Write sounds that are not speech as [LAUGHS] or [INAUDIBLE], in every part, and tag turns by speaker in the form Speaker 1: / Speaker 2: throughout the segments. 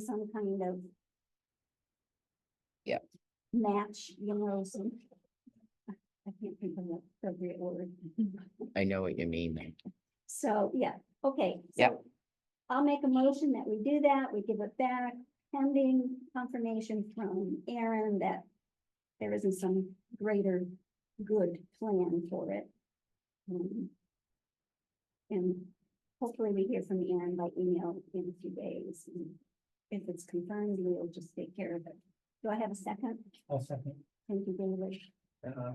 Speaker 1: some kind of.
Speaker 2: Yep.
Speaker 1: Match, you know, some. I can't think of the appropriate word. [LAUGHS]
Speaker 2: I know what you mean.
Speaker 1: So, yeah, okay.
Speaker 2: Yep.
Speaker 1: so I'll make a motion that we do that, we give it back pending confirmation from Aaron that there isn't some greater good plan for it. Um, And hopefully we hear from Aaron by email in a few days. and If it's confirmed, we'll just take care of it. Do I have a second?
Speaker 3: I'll second.
Speaker 1: Thank you, David. [LAUGHS]
Speaker 3: uh,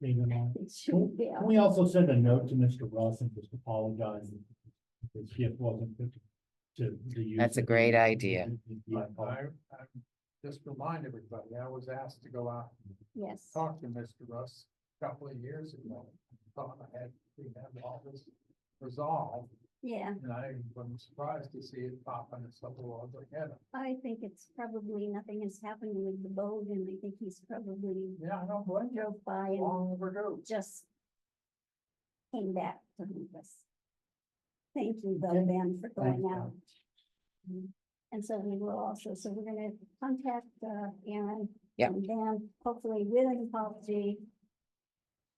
Speaker 3: David and I.
Speaker 1: It should be,
Speaker 3: Can we also send a note to Mr. Russ and just apologize? if His gift wasn't fit to the use.
Speaker 2: That's a great idea.
Speaker 3: Yeah,
Speaker 4: I, I just remind everybody, I was asked to go out and
Speaker 1: yes.
Speaker 4: talk to Mr. Russ a couple of years ago. Thought I had, we had all this resolved,
Speaker 1: Yeah,
Speaker 4: and I was surprised to see it pop in its little other head.
Speaker 1: I think it's probably, nothing has happened with the boat and I think he's probably
Speaker 4: Yeah, I don't blame you,
Speaker 1: drove by and
Speaker 4: long overdue.
Speaker 1: just came back to meet us. Thank you though,
Speaker 3: Okay.
Speaker 1: Ben, for
Speaker 3: Thanks,
Speaker 1: going
Speaker 3: Ben.
Speaker 1: out. Mm. And so we will also, so we're gonna contact uh, Aaron.
Speaker 2: Yep.
Speaker 1: And then hopefully with an apology.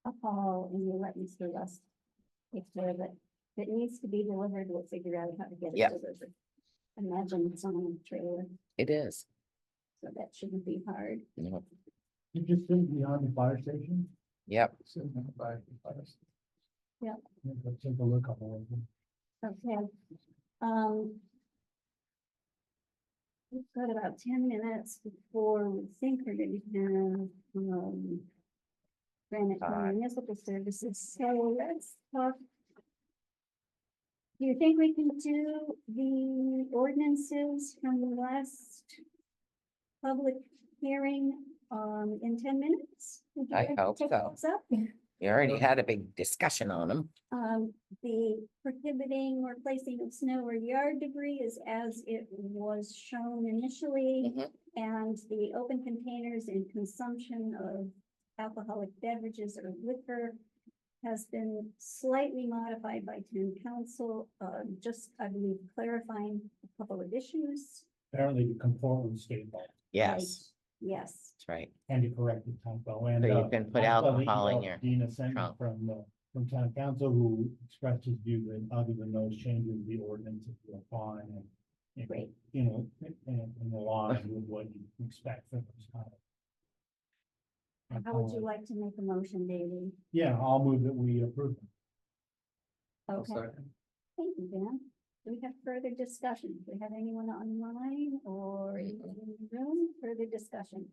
Speaker 1: A call and you'll let Mr. Russ. If there, but if it needs to be delivered, we'll figure out how to get it
Speaker 2: Yep.
Speaker 1: delivered. Imagine it's on a trailer,
Speaker 2: It is.
Speaker 1: so that shouldn't be hard.
Speaker 2: Yep.
Speaker 3: You just think beyond the fire station?
Speaker 2: Yep.
Speaker 4: Sitting in the back of the bus.
Speaker 3: Yeah, let's Take a look on the way.
Speaker 1: Okay, um. We've got about ten minutes before we think we're gonna have, um. Granite County
Speaker 2: Five.
Speaker 1: Municipal Services, so let's talk. Do you think we can do the ordinances from the last? Public hearing, um, in ten minutes? Would you
Speaker 2: I
Speaker 1: like to
Speaker 2: hope
Speaker 1: take
Speaker 2: so.
Speaker 1: those up?
Speaker 2: We already had a big discussion on them.
Speaker 1: Um, the prohibiting or placing of snow or yard debris is as it was shown initially.
Speaker 2: Mhm.
Speaker 1: And the open containers and consumption of alcoholic beverages or liquor has been slightly modified by town council, uh, just, I believe, clarifying a couple of issues.
Speaker 3: Apparently to conform with state law,
Speaker 2: Yes,
Speaker 1: Yes,
Speaker 2: that's right.
Speaker 3: and to correct the town law. and.
Speaker 2: So you
Speaker 3: uh,
Speaker 2: can put
Speaker 3: I saw the
Speaker 2: alcohol in
Speaker 3: email
Speaker 2: your
Speaker 3: Dina sent
Speaker 2: trunk.
Speaker 3: from, uh, from town council who expressed his view that other than those changes, the ordinance is fine and. and,
Speaker 1: Great.
Speaker 3: You know, and, and the law with what you expect for those kind of.
Speaker 1: how would you like to make a motion, David?
Speaker 3: Yeah, I'll move that we approve. them.
Speaker 1: Okay,
Speaker 4: Second.
Speaker 1: thank you, Dan. Do we have further discussion? Do we have anyone online or in the room? Further discussion?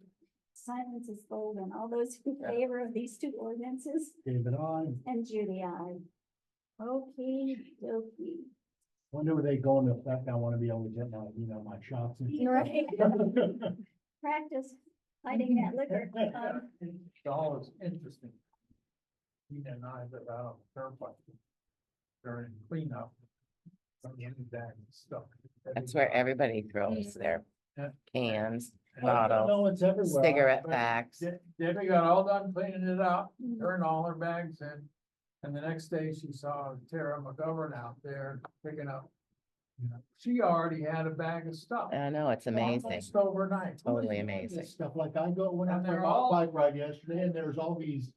Speaker 1: Silence is golden. All those in favor of these two ordinances?
Speaker 3: David, I
Speaker 1: And Judy, I. Okay, okay.
Speaker 3: wonder where they go into effect. I want to be able to get my, you know, my shots. in. [LAUGHS]
Speaker 1: Right. Practice hiding that
Speaker 2: [LAUGHS]
Speaker 1: liquor. Um,
Speaker 4: All is interesting. He and I live out on the turnpike. During cleanup. From the end of that stuff.
Speaker 2: That's where everybody throws their
Speaker 4: Yeah.
Speaker 2: cans,
Speaker 4: And-
Speaker 2: bottles,
Speaker 3: No, it's everywhere.
Speaker 2: cigarette
Speaker 4: but-
Speaker 2: packs.
Speaker 4: De- Debbie got all done cleaning it up, turned all her bags in, and the next day she saw Tara McGovern out there picking up. You know, she already had a bag of stuff.
Speaker 2: I know, it's amazing.
Speaker 4: Almost overnight.
Speaker 2: Totally
Speaker 3: It's
Speaker 2: amazing.
Speaker 3: Stuff like I go, when I
Speaker 4: And they're
Speaker 3: went
Speaker 4: all-
Speaker 3: out bike ride yesterday and there's all these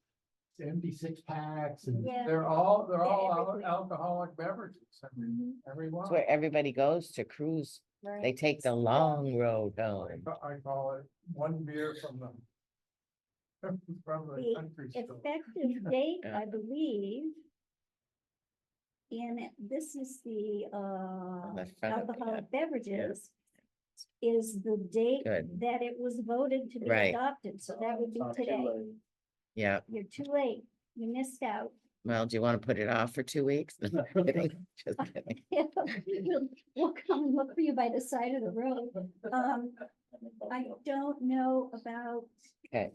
Speaker 3: empty six packs and. [LAUGHS]
Speaker 1: Yeah.
Speaker 4: They're all, they're all al-
Speaker 1: Everything.
Speaker 4: alcoholic beverages, I mean,
Speaker 1: Mhm,
Speaker 4: every
Speaker 2: It's
Speaker 4: one.
Speaker 2: where everybody goes to cruise. They
Speaker 1: Right.
Speaker 2: take the long road
Speaker 4: I
Speaker 2: home.
Speaker 4: ca- I call it one beer from the. [LAUGHS] From
Speaker 1: The
Speaker 4: the country store.
Speaker 2: [LAUGHS]
Speaker 1: Effective date,
Speaker 2: Yeah.
Speaker 1: I believe. And this is the, uh.
Speaker 2: the front of the ad.
Speaker 1: alcoholic beverages is the date
Speaker 2: Good.
Speaker 1: that it was voted to be
Speaker 2: Right.
Speaker 1: adopted, so that would be
Speaker 4: Sorry,
Speaker 1: today.
Speaker 2: Yeah,
Speaker 1: You're too late, you missed out. [LAUGHS]
Speaker 2: well, do you want to put it off for two weeks? [LAUGHS] Kidding, just kidding.
Speaker 1: We'll we'll come and look for you by the side of the road. Um, I don't know about.
Speaker 2: Okay.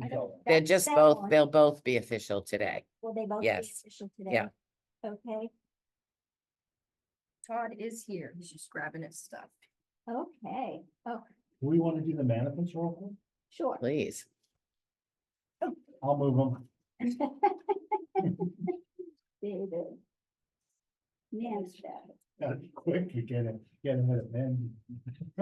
Speaker 1: I don't-
Speaker 2: They're
Speaker 1: that-
Speaker 2: just
Speaker 1: that
Speaker 2: both,
Speaker 1: one.
Speaker 2: they'll both be official today.
Speaker 1: Will they both be
Speaker 2: yes.
Speaker 1: official today?
Speaker 2: Yeah.
Speaker 1: Okay,
Speaker 5: Todd is here. He's just grabbing his stuff.
Speaker 1: okay, oh,
Speaker 3: We want to do the manifest real quick.
Speaker 1: sure.
Speaker 2: Please,
Speaker 3: I'll move [LAUGHS] them.
Speaker 1: [LAUGHS] David. Man's bad.
Speaker 3: Quick, you get it, get ahead of men.